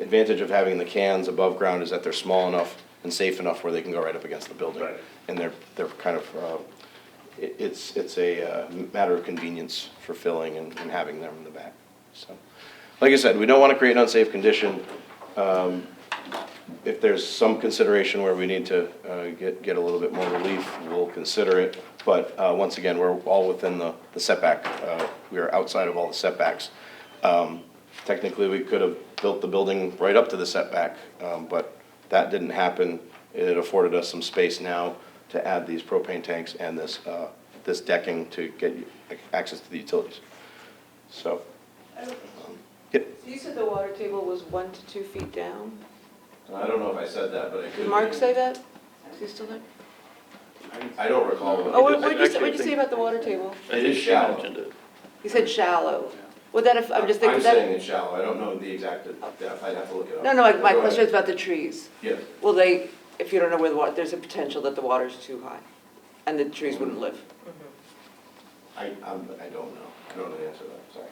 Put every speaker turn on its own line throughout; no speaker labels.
advantage of having the cans above ground is that they're small enough and safe enough where they can go right up against the building.
Right.
And they're, they're kind of, uh, it- it's, it's a uh, matter of convenience for filling and and having them in the back, so. Like I said, we don't want to create an unsafe condition. Um, If there's some consideration where we need to uh, get, get a little bit more relief, we'll consider it. But uh, once again, we're all within the the setback. Uh, We are outside of all the setbacks. Um, Technically, we could have built the building right up to the setback, um, but that didn't happen. It afforded us some space now to add these propane tanks and this, uh, this decking to get access to the utilities. So, yep.
So you said the water table was one to two feet down?
I don't know if I said that, but I could.
Did Mark say that? Is he still there?
I don't recall. but
Oh, what
it-
what'd you say, what'd you say about the water table?
It is shallow.
He said shallow. Would that, have- I'm just thinking
I'm saying
that,
it's shallow. I don't know the exact depth. I'd have to look it up.
no, no, like, my
Go ahead.
question is about the trees.
Yes.
Will they, if you don't know where the water, there's a potential that the water's too high and the trees wouldn't live.
I, I'm, I don't know. I don't know the answer to that, sorry.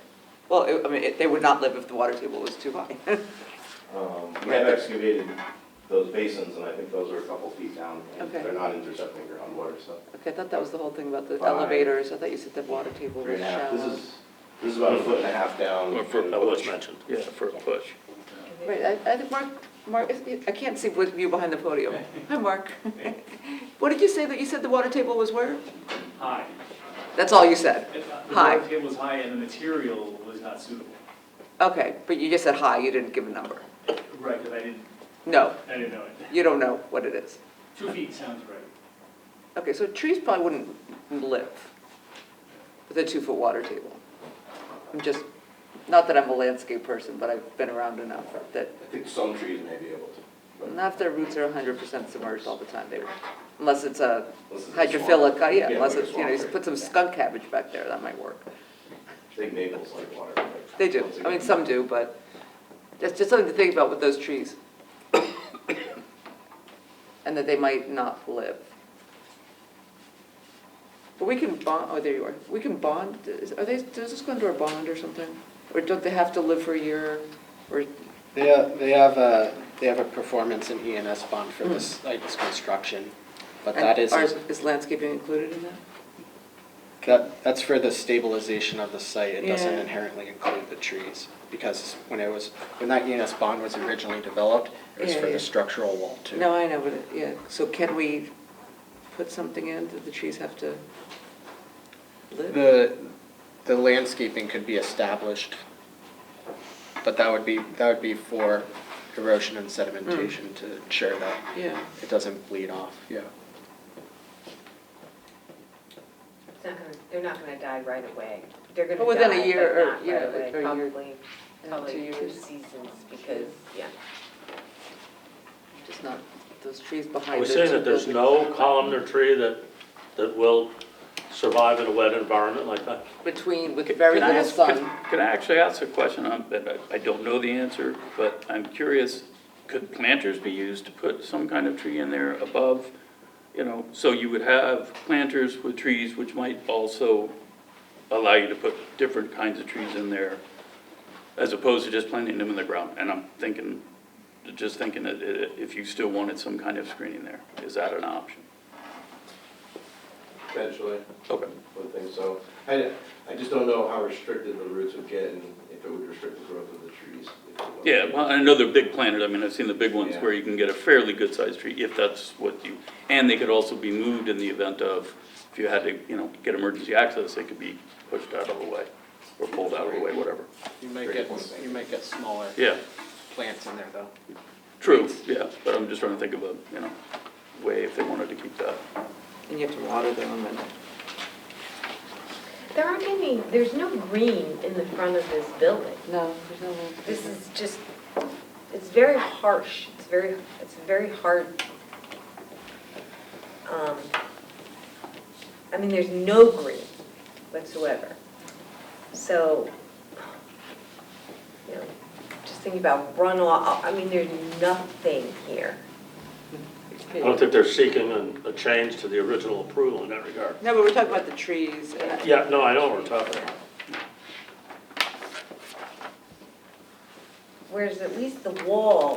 Well, it- I mean, it- they would not live if the water table was too high.
Um, We have excavated those basins, and I think those are a couple feet down. and
Okay.
They're not intercepting groundwater, so.
Okay, I thought that was the whole thing about the
Five.
elevators. I thought you said the water table
Three
was
and a half. This
shallow.
is, this is about a foot and a half down.
Or for a
and
push
push.
mentioned, yeah, for a push.
Right, I, I think Mark, Mark, I can't see with you behind the podium. Hi, Mark. What did you say that you said the water table was where?
high.
That's all you said?
It- The
High.
water table was high and the material was not suitable.
Okay, but you just said hi, you didn't give a number.
Right, because I didn't,
No,
I didn't know it.
you don't know what it is.
Two feet sounds right.
Okay, so trees probably wouldn't live with a two-foot water table. I'm just, not that I'm a landscape person, but I've been around enough that,
I think some trees may be able to. but
not if their roots are hundred percent submerged all the time, they, unless it's a
Unless it's a
hydrophilic, uh,
swamp.
yeah, unless
like a
it's, you know, you
swamp,
put some skunk cabbage back there, that might work.
right. Big maples like water. right?
They do,
Once
I mean,
again.
some do, but that's just something to think about with those trees. And that they might not live. But we can bond, oh, there you are, we can bond, is- are they, does this go into our bond or something? Or don't they have to live for a year, or,
They have, they have a, they have a performance and ENS bond for this, like, this construction, but that
Hmm. and
is,
are- is landscaping included in that?
that, that's for the stabilization of the site, it doesn't
Yeah.
inherently include the trees. Because when it was, when that ENS bond was originally developed, it was
Yeah,
for
yeah.
the structural wall too.
No, I know, but, it- yeah, so can we put something in, that the trees have to live?
The, the landscaping could be established, but that would be, that would be for erosion and
Hmm.
sedimentation to ensure that
Yeah.
it doesn't bleed off, yeah.
It's not gonna, they're not gonna die right away. They're gonna
But within a
die,
year
but
or-
not
yeah, like,
right away.
or a year,
Probably,
yeah, two
probably two
years.
seasons because, yeah.
Just not, those trees behind
Are we
those
saying
two
that there's
buildings.
no columnar tree that, that will survive in a wet environment like that?
Between, with very
Can I
little
ask- could-
sun.
Could I actually ask a question? I'm- but I- I don't know the answer, but I'm curious, could planters be used to put some kind of tree in there above? You know, so you would have planters with trees which might also allow you to put different kinds of trees in there as opposed to just planting them in the ground. And I'm thinking, just thinking that i- if you still wanted some kind of screening there, is that an option?
Eventually.
Okay.
would think so. I, I just don't know how restricted the roots would get and if it would restrict the growth of the trees. if it was.
Yeah, well, I know they're big planted, I mean, I've seen the big ones
Yeah.
where you can get a fairly good-sized tree, if that's what you, and they could also be moved in the event of, if you had to, you know, get emergency access, they could be pushed out of the way, or pulled out of the way, whatever.
You might
Great
get,
point, thank
you might get smaller
Yeah,
plants in there though.
true, yeah, but I'm just trying to think of a, you know, way if they wanted to keep that.
And you have to water them and.
There aren't any, there's no green in the front of this building.
No, there's no.
This is just, it's very harsh. It's very, it's very hard. Um, I mean, there's no green whatsoever. So, you know, just thinking about runoff, I mean, there's nothing here.
I don't think they're seeking a, a change to the original approval in that regard.
No, but we're talking about the trees uh, and. I-
Yeah, no, I know what we're talking about.
whereas at least the wall